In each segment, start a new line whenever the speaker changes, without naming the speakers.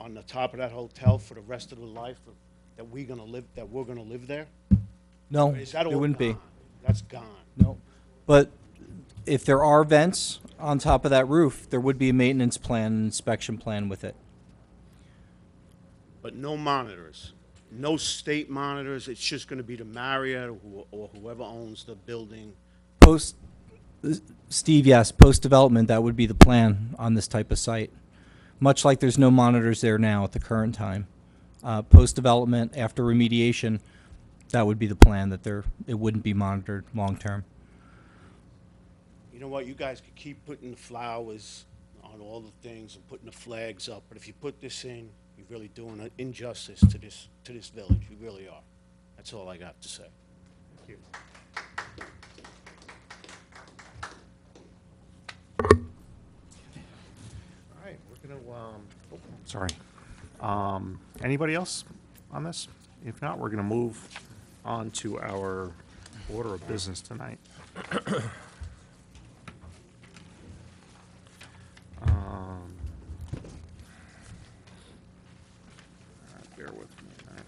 on the top of that hotel for the rest of the life of- that we gonna live, that we're gonna live there?
No,
Is that
it
all
wouldn't be.
gone? That's gone.
No. But if there are vents on top of that roof, there would be a maintenance plan, and inspection plan with it.
But no monitors, no state monitors, it's just gonna be the Marriott or who- or whoever owns the building.
Post, Steve, yes, post-development, that would be the plan on this type of site. Much like there's no monitors there now at the current time. Uh, post-development, after remediation, that would be the plan, that there, it wouldn't be monitored long-term.
You know what, you guys could keep putting the flowers on all the things and putting the flags up, but if you put this in, you're really doing an injustice to this, to this village, you really are. That's all I got to say.
All right, we're gonna, um, oh, sorry. Um, anybody else on this? If not, we're gonna move on to our order of business tonight. Um, Bear with me, all right.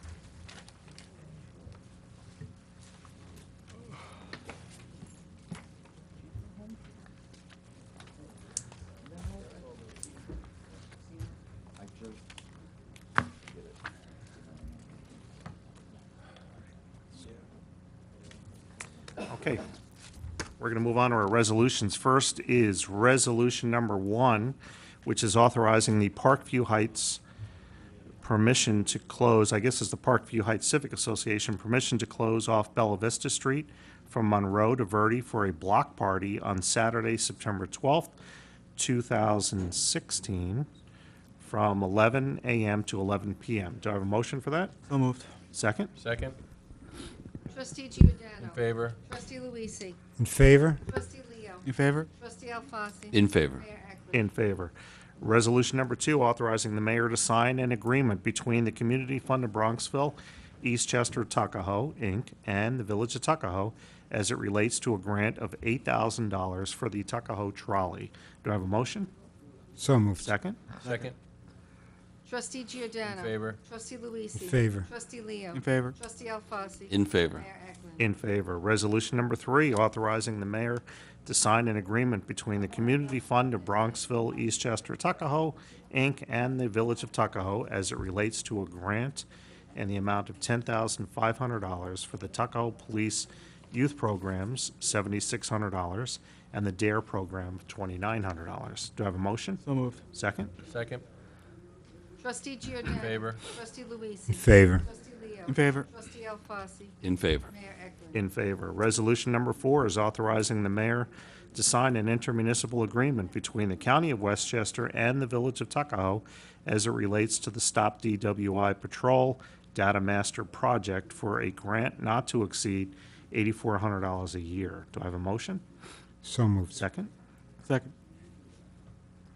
Okay. We're going to move on to our resolutions. First is Resolution Number One, which is authorizing the Parkview Heights permission to close, I guess it's the Parkview Heights Civic Association, permission to close off Bella Vista Street from Monroe to Verde for a block party on Saturday, September 12th, 2016, from 11 a.m. to 11 p.m. Do I have a motion for that?
So moved.
Second?
Second,
Trustee
in
Giordano.
favor.
Trustee Luisi.
In favor?
Trustee Leo.
In favor?
Trustee Alfasi.
In favor.
Mayor Eklund.
In favor. Resolution number two, authorizing the mayor to sign an agreement between the Community Fund of Bronxville, Eastchester, Tuckahoe, Inc., and the Village of Tuckahoe as it relates to a grant of $8,000 for the Tuckahoe trolley. Do I have a motion?
So moved.
Second?
Second,
Trustee Giordano.
In favor.
Trustee Luisi.
In favor.
Trustee Leo.
In favor.
Trustee Alfasi.
In favor.
Mayor Eklund.
In favor. Resolution number three, authorizing the mayor to sign an agreement between the Community Fund of Bronxville, Eastchester, Tuckahoe, Inc., and the Village of Tuckahoe as it relates to a grant and the amount of $10,500 for the Tuckahoe Police Youth Programs, $7,600, and the DARE E Program, $2,900. Do I have a motion?
So moved.
Second?
second,
Trustee Giordano.
In favor.
Trustee
In
Luisi.
favor?
Trustee Leo.
In favor.
Trustee Alfasi.
In favor.
Mayor Eklund.
In favor. Resolution number four is authorizing the mayor to sign an intermunicipal agreement between the County of Westchester and the Village of Tuckahoe as it relates to the Stop DWI Patrol Data Master Project for a grant not to exceed $8,400 a year. Do I have a motion?
So moved.
Second?
Second.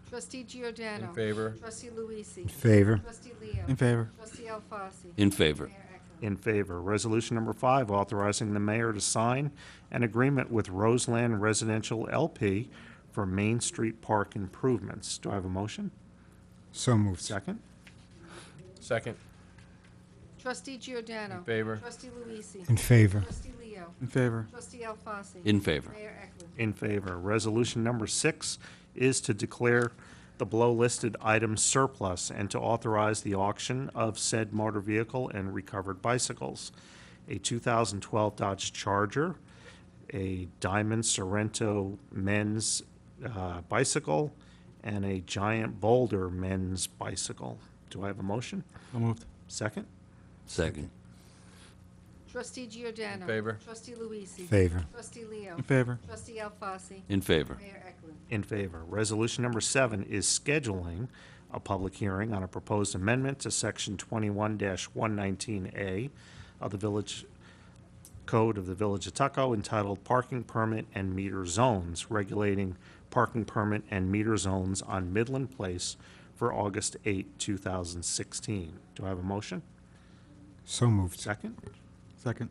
Trustee Giordano.
in favor.
Trustee Luisi.
In favor?
Trustee Leo.
In favor?
Trustee Alfasi.
In favor.
Mayor Eklund.
In favor. Resolution number five, authorizing the mayor to sign an agreement with Roseland Residential LP for Main Street Park improvements. Do I have a motion?
So moved.
Second?
Second,
Trustee Giordano.
in favor.
Trustee Luisi.
In favor?
Trustee Leo.
In favor?
Trustee Alfasi.
In favor.
Mayor Eklund.
In favor. Resolution number six is to declare the below-listed item surplus and to authorize the auction of said motor vehicle and recovered bicycles. A 2012 Dodge Charger, a Diamond Sorrento men's uh, bicycle, and a Giant Boulder men's bicycle. Do I have a motion?
So moved.
Second?
Second.
Trustee Giordano.
In favor.
Trustee Luisi.
Favor?
Trustee Leo.
favor?
Trustee Alfasi.
In favor.
Mayor Eklund.
In favor. Resolution number seven is scheduling a public hearing on a proposed amendment to section twenty-one one nineteen A of the Village Code of the Village of Tuckahoe entitled Parking Permit and Meter Zones, regulating parking permit and meter zones on Midland Place for August 8, thousand sixteen. Do I have a motion?
So moved.
Second?
Second.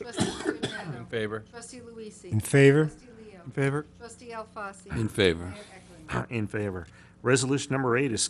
Trustee Giordano.
In favor.
Trustee Luisi.
In favor?
Trustee Leo.
favor?
Trustee Alfasi.
In favor.
Mayor Eklund.
In favor. Resolution number eight is